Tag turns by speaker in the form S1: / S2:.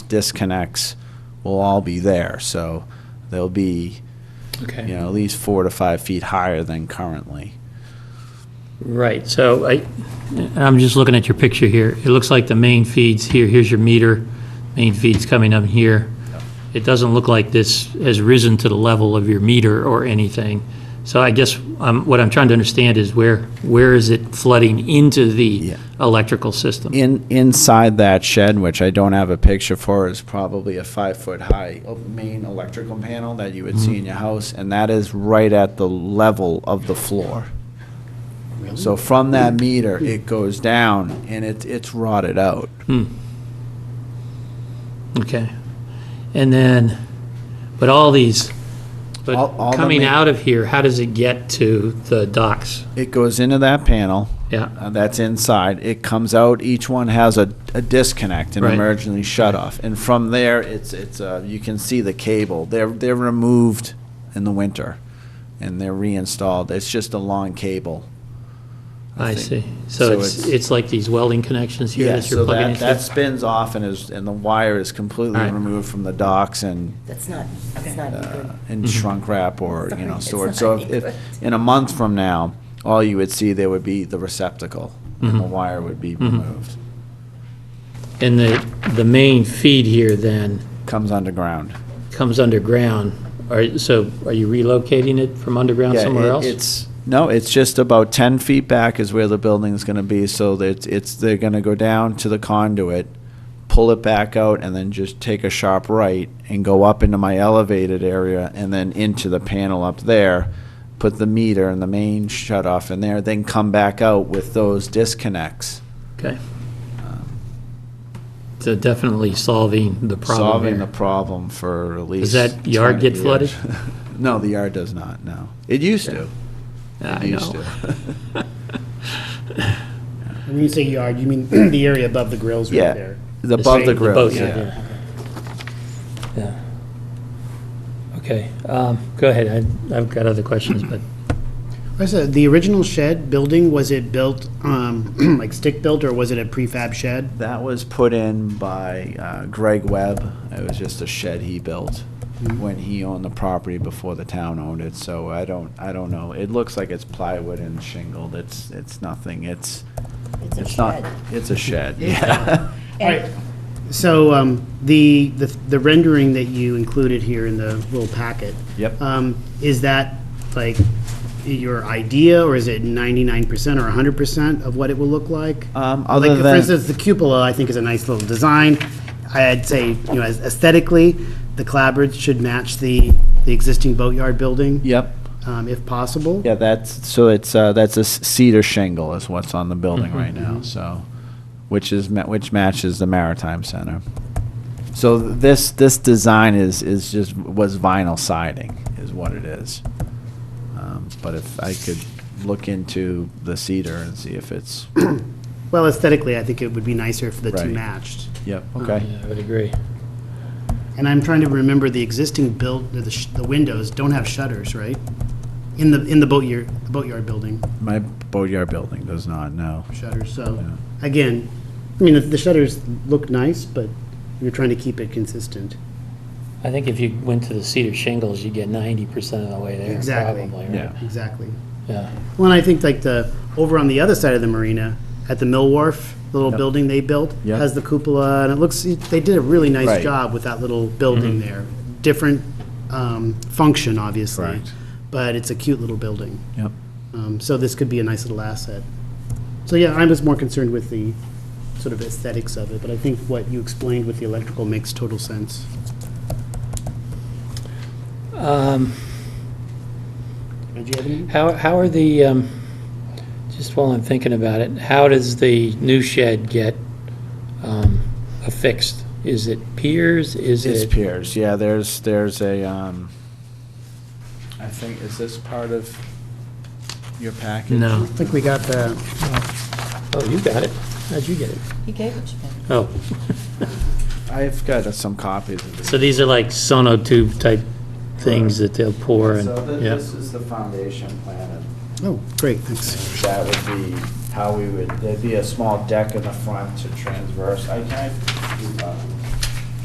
S1: disconnects will all be there. So they'll be,
S2: Okay.
S1: you know, at least four to five feet higher than currently.
S2: Right, so I, I'm just looking at your picture here. It looks like the main feed's here, here's your meter, main feed's coming up here. It doesn't look like this has risen to the level of your meter or anything. So I guess um, what I'm trying to understand is where, where is it flooding into the
S1: Yeah.
S2: electrical system?
S1: In inside that shed, which I don't have a picture for, is probably a five foot high o- main electrical panel that you would see in your house, and that is right at the level of the floor. So from that meter, it goes down and it, it's rotted out.
S2: Okay. And then, but all these,
S1: All- all
S2: but
S1: the
S2: coming
S1: main-
S2: out of here, how does it get to the docks?
S1: It goes into that panel,
S2: Yeah,
S1: uh, that's inside. It comes out. Each one has a, a disconnect, an
S2: Right.
S1: emergency shut off, and from there, it's it's uh, you can see the cable. They're they're removed in the winter, and they're reinstalled. It's just a long cable.
S2: I see.
S1: think.
S2: So
S1: So
S2: it's,
S1: it's-
S2: it's like these welding connections here that
S1: so
S2: you're plugging
S1: that,
S2: into?
S1: that spins off and is and the wire is completely
S2: Alright.
S1: removed from the docks and
S3: That's not, that's not
S1: uh,
S3: good.
S1: and
S2: Mm-hmm.
S1: shrunk wrap or you
S3: Sorry,
S1: know
S3: it's
S1: stored.
S3: not
S1: So if,
S3: good.
S1: if in a month from now, all you would see there would be the receptacle, and
S2: Mm-hmm.
S1: the wire would be removed.
S2: And the, the main feed here then
S1: Comes underground.
S2: comes underground. Are, so are you relocating it from underground
S1: Yeah,
S2: somewhere
S1: it-
S2: else?
S1: It's, no, it's just about ten feet back is where the building's gonna be, so that it's- it's, they're gonna go down to the conduit, pull it back out, and then just take a sharp right and go up into my elevated area and then into the panel up there, put the meter and the main shut off in there, then come back out with those disconnects, Um,
S2: Okay. So definitely solving the problem
S1: solving the
S2: here.
S1: problem for at least.
S2: that yard
S1: 20
S2: get flooded?
S1: years. No, the yard does not, no. It used to.
S2: I
S1: It used
S2: know.
S1: to.
S4: When you say yard, you mean the area above the grills
S1: Yeah.
S4: right there?
S1: The Above
S2: same-
S1: the
S2: boat
S1: grills,
S2: side,
S1: yeah.
S2: Yeah. Okay, um, go ahead. I- I've got other questions, but,
S4: I said, the original shed building, was it built, um, like stick-built, or was it a prefab shed?
S1: That was put in by uh, Greg Webb. It was just a shed he built when he owned the property before the town owned it, so I don't, I don't know. It looks like it's plywood and shingled. It's, it's nothing. It's,
S3: It's a
S1: it's not,
S3: shed.
S1: it's a shed, yeah.
S3: And
S4: So, um, the, the the rendering that you included here in the little packet.
S1: Yep.
S4: Um, is that, like, your idea, or is it ninety-nine percent or hundred percent of what it will look like?
S1: Um,
S4: Like,
S1: other
S4: For
S1: than-
S4: instance, the cupola, I think, is a nice little design. I'd say, you know, aesthetically, the clapboards should match the, the existing boatyard building.
S1: Yep.
S4: um, if possible.
S1: Yeah, that's, so it's, uh, that's a s- cedar shingle is what's on the building right now, so, which is, ma- which matches the Maritime Center. So th- this, this design is, is just, was vinyl siding, is what it is. Um, But if I could look into the cedar and see if it's,
S4: Well, aesthetically, I think it would be nicer if the two
S1: Right.
S4: matched.
S1: yep,
S2: Oh, yeah,
S1: okay.
S2: I would agree.
S4: And I'm trying to remember the existing build, the, sh- the windows don't have shutters, right? In the, in the boatyard, the boatyard building,
S1: My Boatyard building does not, no.
S4: shutters, so, again, I mean, the- the shutters look nice, but you're trying to keep it consistent.
S2: I think if you went to the cedar shingles, you'd get ninety percent of the way there,
S4: Exactly.
S2: probably, right?
S1: Yeah.
S4: Exactly.
S2: Yeah.
S4: Well, and I think like the, over on the other side of the marina, at the Mill Wharf, the little
S1: Yep.
S4: building they built,
S1: Yep.
S4: has the cupola, and it looks, they did a really
S1: Right. Mm-hmm.
S4: nice job with that little building there. Different um, function, obviously.
S1: Correct.
S4: But it's a cute little building.
S1: Yep.
S4: Um, So this could be a nice little asset. So yeah, I was more concerned with the sort of aesthetics of it, but I think what you explained with the electrical makes total sense.
S2: Um,
S4: Did you have any?
S2: How, how are the, um, just while I'm thinking about it, how does the new shed get um, affixed? Is it piers? Is
S1: It's
S2: it?
S1: piers, yeah, there's, there's a, um, I think, is this part of your package?
S2: No.
S4: I think we got the,
S2: Oh, you got it. How'd you get it?
S3: he gave it to me.
S2: Oh,
S1: I've got uh, some copies of this.
S2: so these are like sonotube type things that they'll pour and,
S1: So thi-
S2: yeah.
S1: this is the foundation plan,
S4: oh, great, thanks.
S1: and that would be how we would, there'd be a small deck in the front to transverse. I can, I- uh,